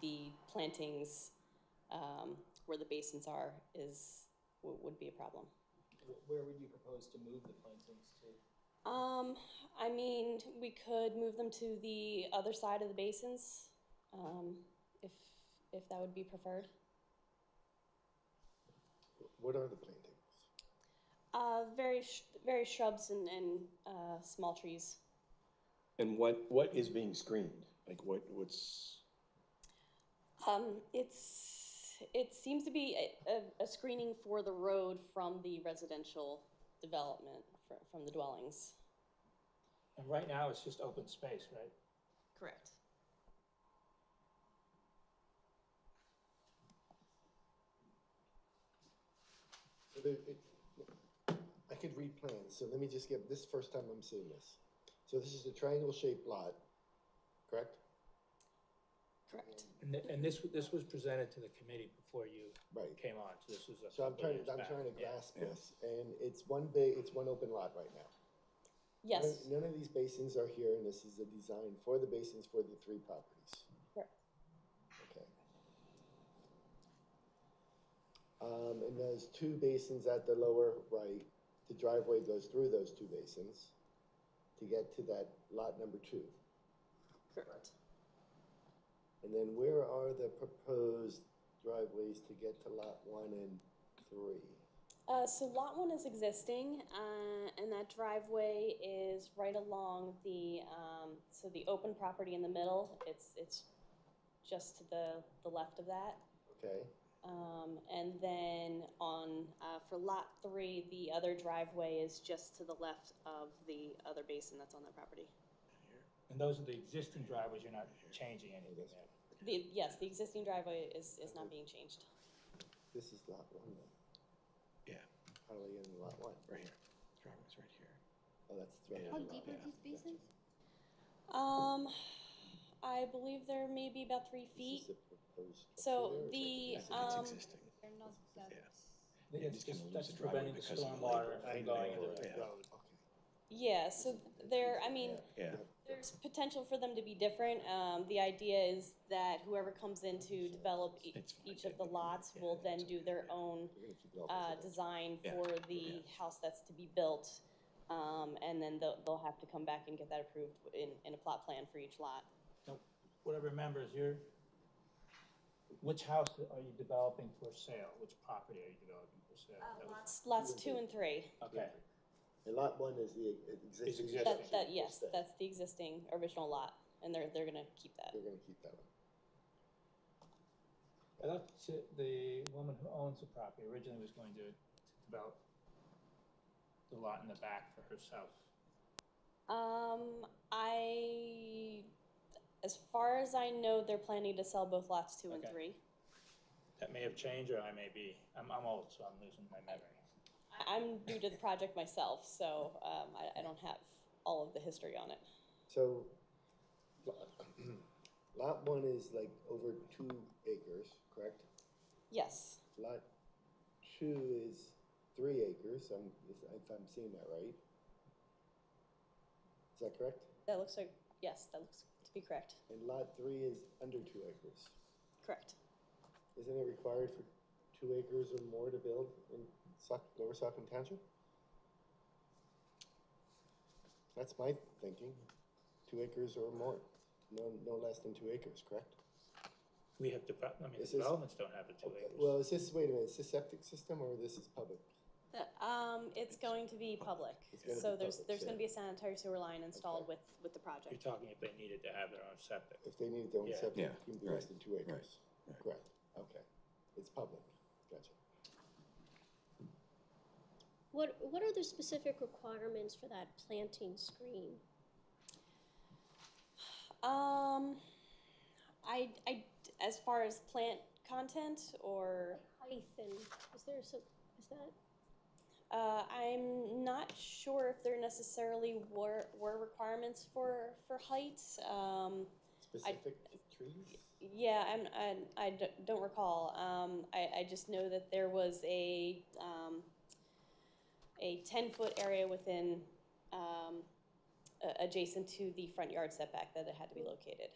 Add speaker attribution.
Speaker 1: the plantings um, where the basins are is, wo- would be a problem.
Speaker 2: Wh- Where would you propose to move the plantings to?
Speaker 1: Um, I mean, we could move them to the other side of the basins, um, if, if that would be preferred.
Speaker 3: What are the plantings?
Speaker 1: Uh, very, sh- very shrubs and, and, uh, small trees.
Speaker 3: And what, what is being screened? Like what, what's,
Speaker 1: Um, it's, it seems to be a, a, a screening for the road from the residential development, fr- from the dwellings.
Speaker 4: And right now, it's just open space, right?
Speaker 1: Correct.
Speaker 3: So there- it- I could read plans, so let me just give, this is the first time I'm seeing this. So this is a triangle shaped lot, correct?
Speaker 1: Correct.
Speaker 4: And, thi- and this, this was presented to the committee before you
Speaker 3: Right.
Speaker 4: came on, so this was a
Speaker 3: So I'm
Speaker 4: couple of
Speaker 3: trying,
Speaker 4: years
Speaker 3: to I'm
Speaker 4: back.
Speaker 3: trying to
Speaker 4: Yeah.
Speaker 3: grasp this, and it's one big, it's one open lot right now. None-
Speaker 1: Yes,
Speaker 3: None of these basins are here, and this is a design for the basins for the three properties.
Speaker 1: correct.
Speaker 3: Okay. Um, and there's two basins at the lower right, the driveway goes through those two basins to get to that lot number two.
Speaker 1: Correct.
Speaker 3: And then where are the proposed driveways to get to lot one and three?
Speaker 1: Uh, so lot one is existing, uh, and that driveway is right along the, um, so the open property in the middle, it's, it's just to the, the left of that.
Speaker 3: Okay,
Speaker 1: Um, and then on, uh, for lot three, the other driveway is just to the left of the other basin that's on that property.
Speaker 4: And those are the existing driveways, you're not changing anything there.
Speaker 1: The, yes, the existing driveway is, is not being changed.
Speaker 3: this is lot one then,
Speaker 5: Yeah,
Speaker 3: how do I get into lot one?
Speaker 5: right here. Driveway's right here.
Speaker 3: Oh, that's. the driveway
Speaker 5: Yeah.
Speaker 6: How
Speaker 3: lot
Speaker 6: deep
Speaker 3: one.
Speaker 6: are these basins?
Speaker 1: Um, I believe there may be about three
Speaker 3: This is
Speaker 1: feet.
Speaker 3: the proposed structure
Speaker 1: So
Speaker 3: there, is that
Speaker 1: the,
Speaker 5: I think it's
Speaker 1: um,
Speaker 5: existing.
Speaker 6: They're not that.
Speaker 5: Yeah.
Speaker 4: It's
Speaker 5: Yeah, he's gonna
Speaker 4: just-
Speaker 5: lose
Speaker 4: that's
Speaker 5: the driveway
Speaker 4: preventing the
Speaker 5: because of the
Speaker 4: stormwater
Speaker 5: labor.
Speaker 3: uh,
Speaker 4: from going into
Speaker 5: Yeah.
Speaker 4: the road.
Speaker 3: Okay.
Speaker 1: yeah, so there, I mean,
Speaker 5: Yeah,
Speaker 1: There's potential for them to be different. Um, the idea is that whoever comes in to develop e-
Speaker 5: It's fine,
Speaker 1: each of
Speaker 5: yeah,
Speaker 1: the
Speaker 5: yeah,
Speaker 1: lots
Speaker 5: yeah,
Speaker 1: will
Speaker 5: yeah,
Speaker 1: then
Speaker 5: it's
Speaker 1: do
Speaker 5: okay,
Speaker 1: their
Speaker 5: yeah.
Speaker 1: own,
Speaker 3: We're gonna keep it all
Speaker 1: uh,
Speaker 3: residential.
Speaker 1: design
Speaker 5: Yeah,
Speaker 1: for the house that's to be built. Um, and then they'll, they'll have to come back and get that approved in, in a plot plan for each lot.
Speaker 4: Now, What I remember is you're, which house are you developing for sale? Which property are you developing for
Speaker 7: Uh,
Speaker 4: sale? That was-
Speaker 1: Lots, lots two and three,
Speaker 4: Okay,
Speaker 3: And lot one is the e-, existing.
Speaker 4: existing.
Speaker 3: structure
Speaker 1: that, that, yes,
Speaker 3: that's there.
Speaker 1: that's the existing original lot, and they're, they're gonna keep that.
Speaker 3: We're gonna keep that one.
Speaker 4: I thought she- the woman who owns the property originally was going to develop the lot in the back for herself.
Speaker 1: Um, I, as far as I know, they're planning to sell both lots two and
Speaker 4: Okay.
Speaker 1: three.
Speaker 4: That may have changed, or I may be, I'm, I'm old, so I'm losing my memory.
Speaker 1: I- I'm new to the project myself, so um, I, I don't have all of the history on it.
Speaker 3: So, lot- lot one is like over two acres, correct?
Speaker 1: Yes,
Speaker 3: Lot two is three acres, I'm, if- if I'm seeing that right. Is that correct?
Speaker 1: that looks like, yes, that looks to be correct.
Speaker 3: And lot three is under two acres.
Speaker 1: Correct.
Speaker 3: Isn't it required for two acres or more to build in Sauk, Lower Saucon Township? That's my thinking, two acres or more, no, no less than two acres, correct?
Speaker 4: We have develop, I mean, the
Speaker 3: This is-
Speaker 4: developments don't have the two
Speaker 3: Okay,
Speaker 4: acres.
Speaker 3: Well, is this, wait a minute, is this septic system or this is public?
Speaker 1: The- Um, it's going to be public,
Speaker 3: It's gonna
Speaker 1: so
Speaker 3: be
Speaker 1: there's,
Speaker 3: public,
Speaker 1: there's
Speaker 3: so-
Speaker 1: gonna be a sanitary sewer line installed with, with the
Speaker 4: You're
Speaker 1: project.
Speaker 4: talking if they needed to have their own septic.
Speaker 3: If they need their own
Speaker 4: Yeah.
Speaker 3: septic,
Speaker 5: Yeah,
Speaker 3: it can be less
Speaker 5: right,
Speaker 3: than two acres.
Speaker 5: right.
Speaker 3: Correct, okay, it's public, gotcha.
Speaker 7: What, what are the specific requirements for that planting screen?
Speaker 1: Um, I, I, as far as plant content or,
Speaker 7: Height and, is there some, is that,
Speaker 1: uh, I'm not sure if there necessarily were, were requirements for, for height. Um,
Speaker 3: Specific trees?
Speaker 1: Yeah, I'm, I, I d- don't recall. Um, I, I just know that there was a, um, a ten-foot area within, um, a- adjacent to the front yard setback that it had to be located.